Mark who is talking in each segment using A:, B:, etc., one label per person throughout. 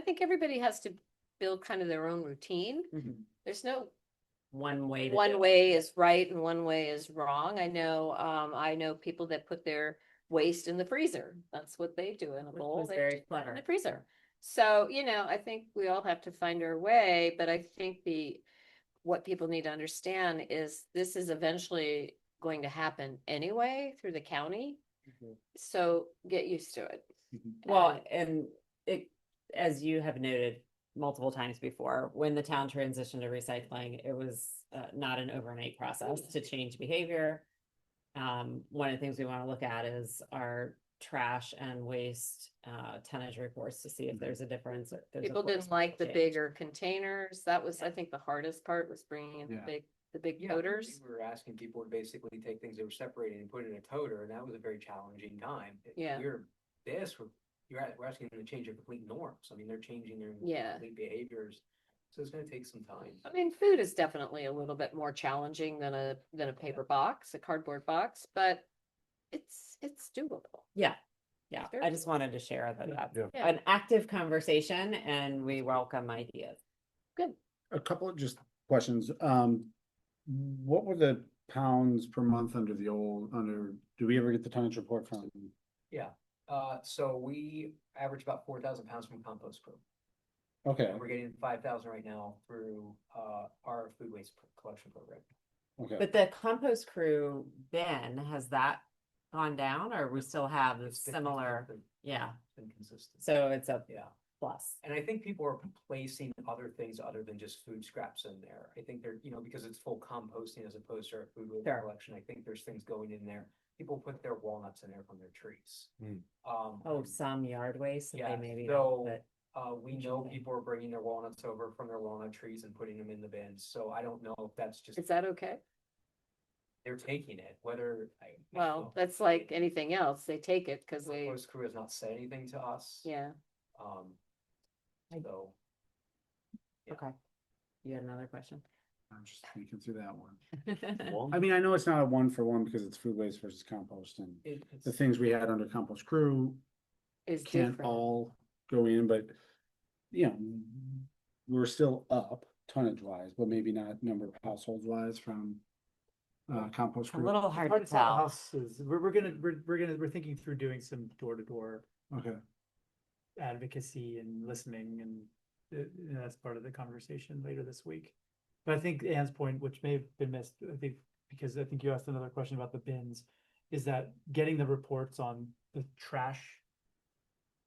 A: think everybody has to build kind of their own routine.
B: Mhm.
A: There's no
B: One way. to do
A: one
B: it.
A: way is right and one way is wrong. I know, um, I know people that put their waste in the freezer. That's what they do in a
B: Which
A: bowl.
B: was
A: they
B: very
A: just put it In
B: clever.
A: the freezer. So, you know, I think we all have to find our way, but I think the, what people need to understand is this is eventually going to happen anyway through the county.
C: Mhm.
A: Mm-hmm. So get used to it.
C: Mhm.
B: Well, and it, as you have noted multiple times before, when the town transitioned to recycling, it was uh, not an overnight process
A: Mm-hmm.
B: to change behavior. Um, one of the things we want to look at is our trash and waste uh, tonnage reports to see if there's a difference. if there's a
A: People didn't like the
B: corresponding change.
A: bigger containers. That was, I think, the hardest part was bringing in the
C: Yeah.
A: big, the big
D: Yeah, I think
A: coders.
D: We were asking people to basically take things that were separated and put it in a toter, and that was a very challenging time. It-
A: Yeah.
D: We're, this, we're, you're, at- we're asking them to change their complete norms, I mean, they're changing their
A: Yeah.
D: complete behaviors, so it's gonna take some time.
A: I mean, food is definitely a little bit more challenging than a, than a paper box, a cardboard box, but it's, it's doable.
B: Yeah, yeah.
A: Sure.
B: I just wanted to share that that's
C: Yeah.
A: Yeah.
B: an active conversation and we welcome ideas.
C: A couple of just questions, um, what were the pounds per month under the old, under, do we ever get the tonnage report from?
D: Uh, so we average about four thousand pounds from compost crew,
C: Okay,
D: and we're getting five thousand right now through, uh, our food waste pro- collection program.
C: okay,
B: But the compost crew, Ben, has that gone down or we still have the
D: It's been
B: similar?
D: consistent,
B: Yeah,
D: it's Been consistent.
B: so it's a
D: Yeah.
B: plus.
D: And I think people are placing other things other than just food scraps in there. I think they're, you know, because it's full composting as opposed to our food waste
B: Sure.
D: collection, I think there's things going in there. People put their walnuts in there from their trees.
C: Hmm.
D: Um,
B: Oh, some yard waste, that
D: Yeah,
B: they maybe don't,
D: so-
B: but
D: uh, we know
B: Interesting.
D: people are bringing their walnuts over from their walnut trees and putting them in the bins, so I don't know if that's just,
A: Is that okay?
D: they're taking it, whether. I- I don't
A: Well,
D: know.
A: that's like anything else. They take it because
D: The
A: they,
D: host crew has not said anything to us.
A: yeah.
D: Um,
B: I-
D: so. yeah.
B: okay. You had another question?
C: I'm just thinking through that one. I mean, I know it's not a one for one because it's food waste versus compost and
D: It,
C: the
D: it's,
C: things we had under compost crew
A: Is
C: can't
A: different.
C: all go in, but you know, we're still up tonnage wise, but maybe not number of households wise from uh, compost
B: A
C: crew.
B: little hard to
E: Hard to sell
B: tell.
E: houses. We're, we're gonna, we're, we're gonna, we're thinking through doing some door-to-door
C: Okay,
E: advocacy and listening and uh, you know, that's part of the conversation later this week. But I think Anne's point, which may have been missed, I think, because I think you asked another question about the bins, is that getting the reports on the trash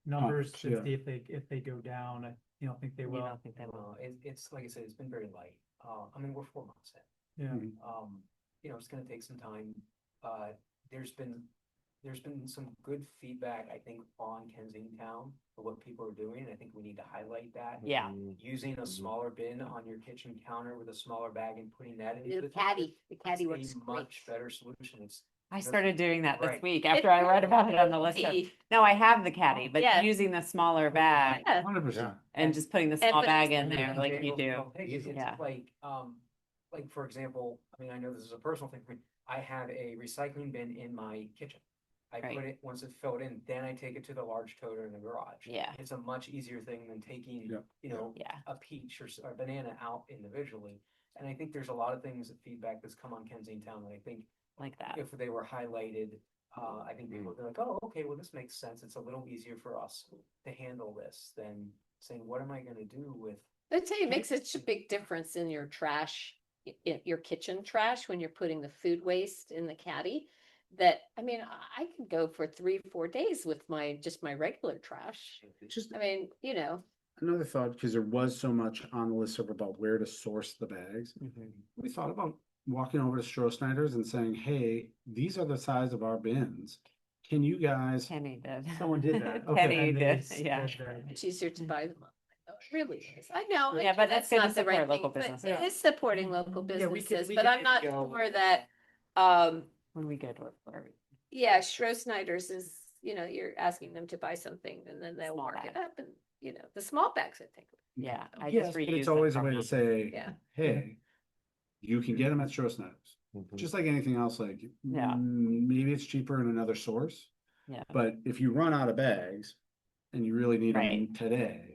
E: numbers
C: yeah.
E: to see if they, if they go down, I you don't think they
B: You
E: will,
B: don't think they will.
D: uh, it, it's, like I said, it's been very light. Uh, I mean, we're four months in.
E: yeah.
C: Mhm.
D: um, you know, it's gonna take some time. Uh, there's been, there's been some good feedback, I think, on Kensington for what people are doing. I think we need to highlight that.
C: Mm-hmm.
B: Yeah,
D: Using a
C: Mhm.
D: smaller bin on your kitchen counter with a smaller bag and putting that in.
A: The caddy, the caddy works
D: It's a
A: great.
D: much better solution. It's,
B: I
D: That's
B: started doing that this
D: right.
B: week after I read about it on the list. of- Oh,
A: The-
B: No, I have the caddy,
A: Yeah.
B: but using the smaller bag
A: yeah,
C: hundred percent.
B: and just putting the small
A: but-
B: bag in there
D: Yeah,
B: like
D: they
B: you
D: will
B: do.
D: still take it. It's
B: Yeah.
D: Like, um, like for example, I mean, I know this is a personal thing, but I have a recycling bin in my kitchen. I put
B: Right.
D: it, once it's filled in, then I take it to the large toter in the garage.
B: Yeah.
D: It's a much easier thing than taking,
C: Yeah.
D: you know,
B: Yeah,
D: a peach or s- or a banana out individually. And I think there's a lot of things, that feedback that's come on Kensington that I think
B: like that.
D: if they were highlighted, uh, I think people would be like, oh, okay, well, this makes sense. It's a little easier for us to handle this than saying, what am I gonna do with
A: I tell you, it makes such a big difference in your trash, i- i- your kitchen trash, when you're putting the food waste in the caddy. That, I mean, I I can go for three, four days with my, just my regular trash.
C: Just
A: I mean, you know,
C: another thought, because there was so much on the list about where to source the bags.
D: Mm-hmm.
C: We thought about walking over to Stroh Snyder's and saying, hey, these are the size of our bins. Can you guys,
B: Kenny did.
E: Someone did that. Okay,
B: Kenny
E: and they
B: did,
E: said
B: yeah.
E: that-
A: it's easier to buy them. up. Oh, it Really is. I know.
B: Mm. Yeah, but that's good to
A: not the right
B: support local
A: thing, but
B: business. Mm-hmm.
A: It is supporting local
E: Yeah, we could-
A: businesses,
E: we
A: but
E: could
A: I'm not
E: go-
A: sure that, um,
B: When we go to it, where we-
A: Yeah, Schro Snyder's is, you know, you're asking them to buy something and then they'll
B: Small
A: mark it
B: bag.
A: up and, you know, the small bags, I think.
B: yeah, I
C: yes,
B: just
C: but
B: reuse.
C: it's
B: them
C: always a
B: from
C: way to
B: them.
C: say,
A: Yeah.
C: hey, you can get them at Stroh Snyder's. Just like anything else, like,
B: Mm. Yeah.
C: mm, maybe it's cheaper in another source.
B: Yeah.
C: But if you run out of bags and you really need
B: Right.
C: them today,